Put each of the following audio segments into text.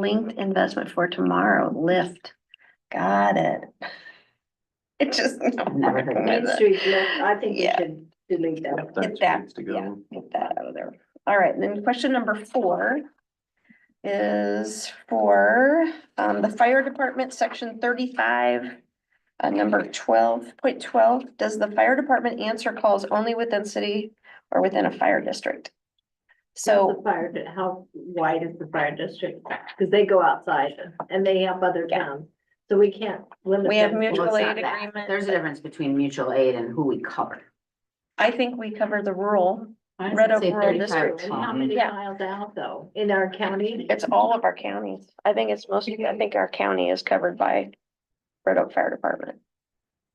Linked investment for tomorrow, Lyft. Got it. It just. Never heard of Main Street, yeah, I think we Yeah. should delete that. Get that, yeah, get that out of there. All right, then question number four is for um the fire department, section thirty-five. Uh, number twelve point twelve, does the fire department answer calls only within city or within a fire district? The So, fire, di- how wide is the fire district? Because they go outside and they help other towns, so we can't limit. We have them. mutual Well, it's aid not that. agreement. There's a difference between mutual aid and who we cover. I think we cover the rural, Why does Red it Oak say Rural 35 District. And How many Yeah. miles out though, in our county? it's all of our counties. I think it's mostly, I think our county is covered by Red Oak Fire Department.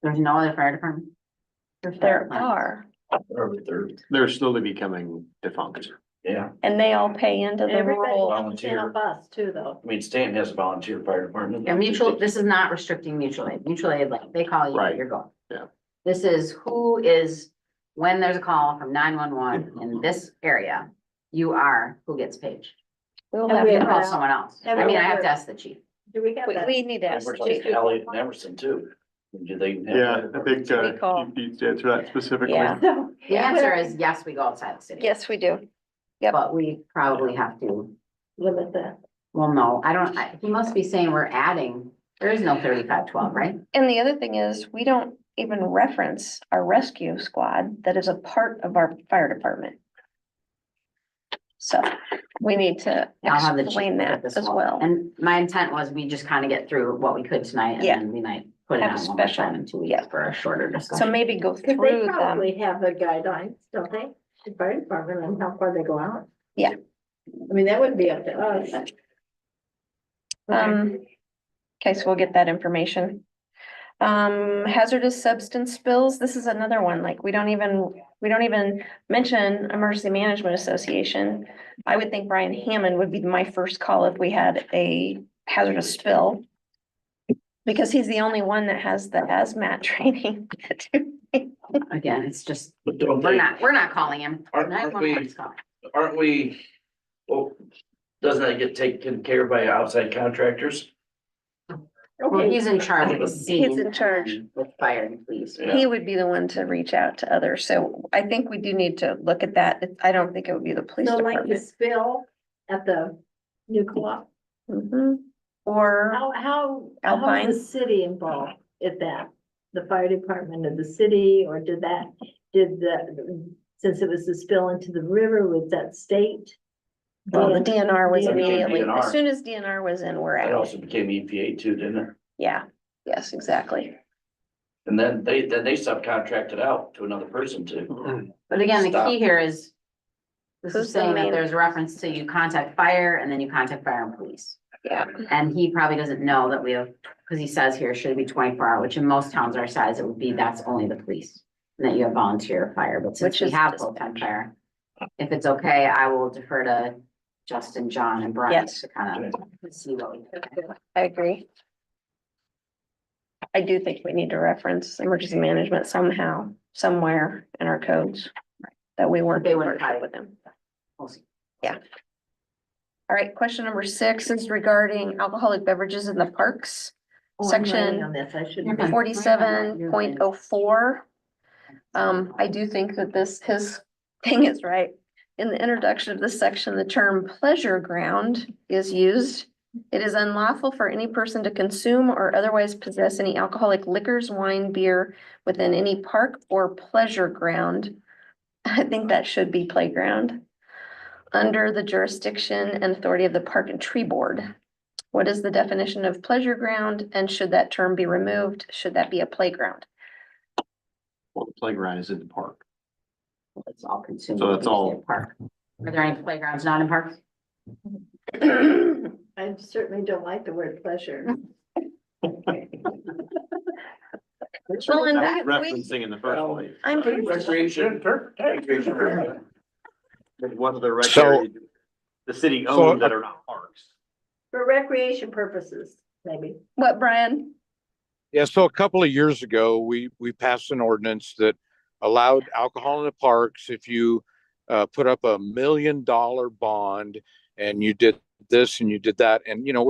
There's no other fire department? There are, They're slowly becoming defunct. Yeah, and they all pay into the Everybody rural. comes in Volunteer. on bus too, though. I mean, Stanton has a volunteer fire department. Yeah, mutual, this is not restricting mutual aid. Mutual aid, like, they call you, Right. you're going. Yeah. This is who is, when there's a call from nine one one in this area, you are who gets paid. We'll And have You to can call Yeah. someone else. I Yeah. mean, I have to ask the chief. Do we have We, that? we need to ask the talking- chief. chief. Elliot and Emerson too. Do they? have- Yeah, I think, uh, Recall. you need to answer that specifically. Yeah. So, The answer is yes, we go outside the city. Yes, we do. Yep. But we probably have to, Limit that. well, no, I don't, I- he must be saying we're adding, there is no thirty-five twelve, right? And the other thing is, we don't even reference our rescue squad that is a part of our fire department. So we need to I'll have the chief explain look at that this as one. well. And my intent was we just kind of get through what we could tonight and Yeah. then we might put it Have a on one more special, time in two yeah. weeks for a shorter So discussion. maybe go Cause they through them. probably have the guidelines, don't they? The fire department and how far they go out. Yeah. I mean, that would be up to us. Um, okay, so we'll get that information. Um, hazardous substance spills, this is another one, like, we don't even, we don't even mention Emergency Management Association. I would think Brian Hammond would be my first call if we had a hazardous spill. Because he's the only one that has the hazmat training. Again, it's just, But don't we're they, not, we're not calling him. Aren't- aren't 911 is calling. aren't we? Well, doesn't that get taken care of by outside contractors? Well, Okay, he's in charge of the scene. He's in charge. With fire and police. Yeah. He would be the one to reach out to others, so I think we do need to look at that. I don't think it would be the police so like the department. spill at the new co-op, Mhm. Or. how, how, Alpine? how is the city involved at that? The fire department of the city, or did that, did the, since it was the spill into the river, was that state? Well, the DNR was Yeah. immediately, as DNR. soon as DNR was in, we're That out. also became EPA too, didn't it? Yeah, yes, exactly. And then they, then they subcontracted out to another person too. But again, the Stop. key here is. This Who's is the saying that main- there's reference to you contact fire and then you contact fire and police. Yeah. And he probably doesn't know that we have, because he says here should be twenty-four hour, which in most towns our size, it would be that's only the police. And that you have volunteer fire, but since Which we is have dispatch. full-time fire. If it's okay, I will defer to Justin, John and Brian Yes. to kind of see what we. I agree. I do think we need to reference emergency management somehow, somewhere in our codes. That we weren't. They wouldn't working hide it. With them. we'll see. All right, question number six is regarding alcoholic beverages in the parks. Oh, I'm Section writing On this, I shouldn't. be. Mhm. forty-seven point oh four. Um, I do think that this, his thing is right. In the introduction of this section, the term pleasure ground is used. It is unlawful for any person to consume or otherwise possess any alcoholic liquors, wine, beer within any park or pleasure ground. I think that should be playground. Under the jurisdiction and authority of the Park and Tree Board. What is the definition of pleasure ground and should that term be removed? Should that be a playground? Well, the playground is in the park. It's all consumed. So that's all- Park. Are there any playgrounds not in parks? I certainly don't like the word pleasure. Mm-hmm. Well, and That's that- we- Referencing in the first Well, place. I'm pretty Recreation. Recreation. There's One of the So- records, the city owned that are not parks. For recreation purposes, maybe. What, Brian? Yeah, so a couple of years ago, we, we passed an ordinance that allowed alcohol in the parks if you uh, put up a million dollar bond and you did this and you did that. And, you know,